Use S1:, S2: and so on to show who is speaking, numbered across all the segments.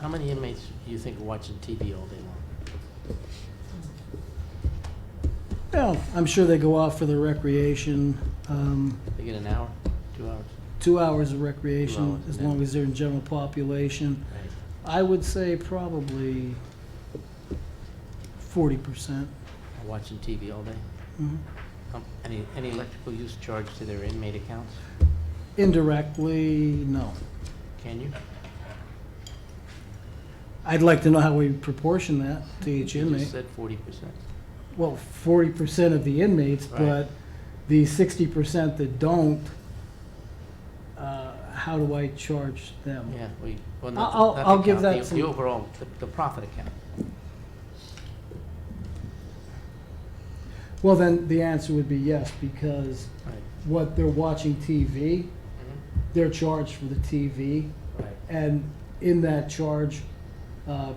S1: How many inmates do you think are watching TV all day long?
S2: Well, I'm sure they go out for their recreation, um,
S1: They get an hour, two hours?
S2: two hours of recreation,
S1: hours,
S2: as
S1: yeah.
S2: long as they're in general population.
S1: Right.
S2: I would say probably forty percent.
S1: Are Watching TV all day? Um, Any, any electrical use charged to their inmate accounts?
S2: Indirectly, no.
S1: Can you?
S2: I'd like to know how we proportion that to each
S1: You just
S2: inmate.
S1: said forty percent.
S2: Well, forty percent of the inmates,
S1: Right.
S2: but the sixty percent that don't, uh, how do I charge them?
S1: Yeah, we, well,
S2: I'll-
S1: not the-
S2: I'll-
S1: not the
S2: I'll give
S1: account,
S2: that
S1: the-
S2: some-
S1: The overall, the- the profit account.
S2: Well, then, the answer would be yes, because
S1: Right.
S2: what they're watching TV,
S1: Mhm.
S2: they're charged for the TV,
S1: Right.
S2: and in that charge, uh,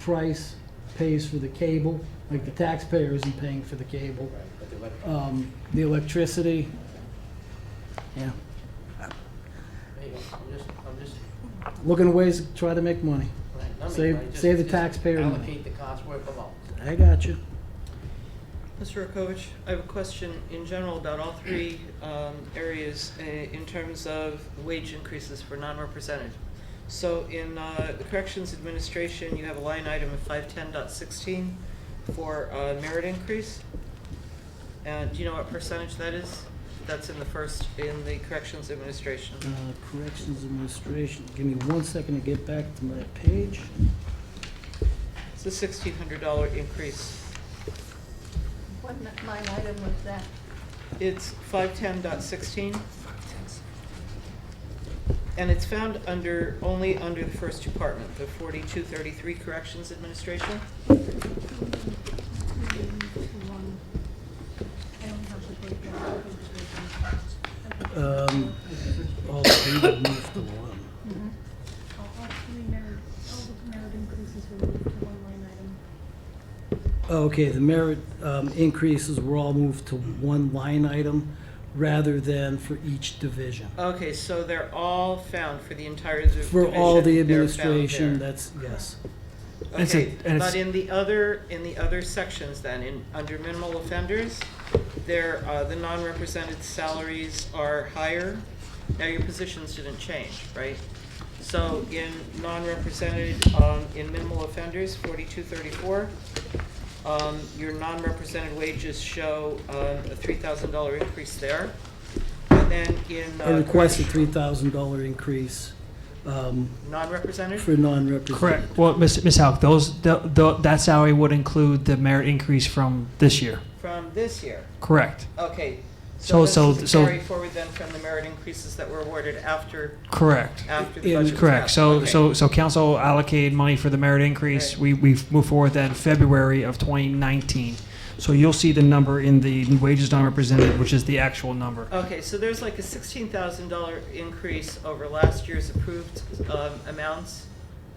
S2: price pays for the cable, like the taxpayer isn't paying for the cable,
S1: Right, but the elec-
S2: um, the electricity. Yeah,
S1: there you go. I'm just, I'm just,
S2: looking at ways to try to make money.
S1: right, numbing,
S2: Save-
S1: right? Just-
S2: save the
S1: just
S2: taxpayer money.
S1: Allocate the cost where it belongs.
S2: I got you.
S3: Mr. Rakovich, I have a question in general about all three um, areas uh, in terms of wage increases for non-represented. So in uh, the Corrections Administration, you have a line item of 510.16 for uh, merit increase. And do you know what percentage that is? That's in the first, in the Corrections Administration.
S2: Uh, Corrections Administration, give me one second to get back to my page.
S3: It's a $1,600 increase.
S4: What n- line item was that?
S3: It's 510.16. And it's found under, only under the first department, the 4233 Corrections Administration.
S4: I don't have the breakdown.
S2: Um, all three have moved to one.
S5: All all three merit, all the merit increases were moved to one line item.
S2: Okay, the merit um, increases were all moved to one line item rather than for each division.
S3: Okay, so they're all found for the entire div- division.
S2: For all the
S3: They're found
S2: administration,
S3: there.
S2: that's, yes. It's a-
S3: Okay,
S2: and it's-
S3: but in the other, in the other sections then, in, under minimal offenders, there, uh, the non-represented salaries are higher. Now, your positions didn't change, right? So in non-represented, um, in minimal offenders, forty-two thirty-four, um, your non-represented wages show, um, a three thousand dollar increase there. And then in, uh.
S2: I requested $3,000 increase um,
S3: Non-represented?
S2: for non-represented.
S6: Correct. Well, Miss Miss Halk, those the, the, that salary would include the merit increase from this year.
S3: From this year.
S6: Correct.
S3: Okay,
S6: So-
S3: so this
S6: so-
S3: is a
S6: so-
S3: carry forward then from the merit increases that were awarded after,
S6: Correct.
S3: after Uh, the
S2: Yeah,
S3: budget was
S6: Correct.
S3: passed.
S6: So
S3: Okay.
S6: so so council allocated money for the merit increase.
S3: Right.
S6: We we move forward then February of 2019. So you'll see the number in the wages not represented, which is the actual number.
S3: Okay, so there's like a sixteen thousand dollar increase over last year's approved um, amounts.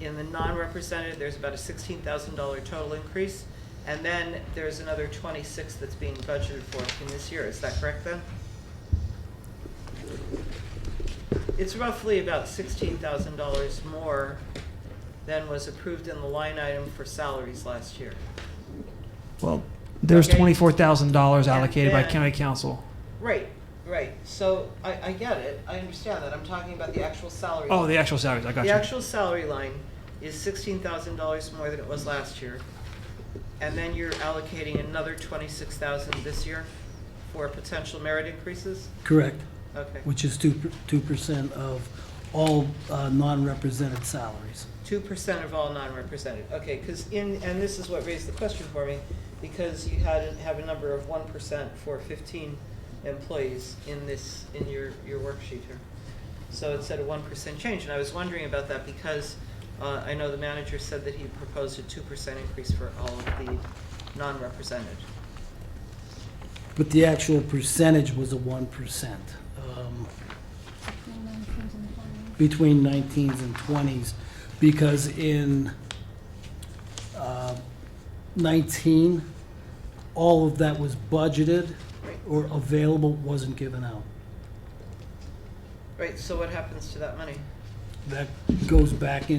S3: In the non-represented, there's about a sixteen thousand dollar total increase. And then there's another twenty-six that's being budgeted for in this year, is that correct then? It's roughly about sixteen thousand dollars more than was approved in the line item for salaries last year.
S6: Well, there's
S3: Okay.
S6: $24,000
S3: And
S6: allocated by
S3: then-
S6: county council.
S3: Right, right, so I, I get it, I understand that, I'm talking about the actual salary.
S6: Oh, the actual salaries. I got
S3: The
S6: you.
S3: actual salary line is sixteen thousand dollars more than it was last year. And then you're allocating another twenty-six thousand this year for potential merit increases?
S2: Correct,
S3: Okay,
S2: which is 2% 2% of all uh, non-represented salaries.
S3: two percent of all non-represented, okay, because in, and this is what raised the question for me, because you had, have a number of one percent for fifteen employees in this, in your, your worksheet here. So it said a one percent change, and I was wondering about that because uh, I know the manager said that he proposed a two percent increase for all of the non-represented.
S2: But the actual percentage was a 1%. um,
S5: Line item comes in the following.
S2: between 19s and 20s, because in uh, 19, all of that was budgeted or available, wasn't given out.
S3: Right, so what happens to that money?
S2: That goes back in.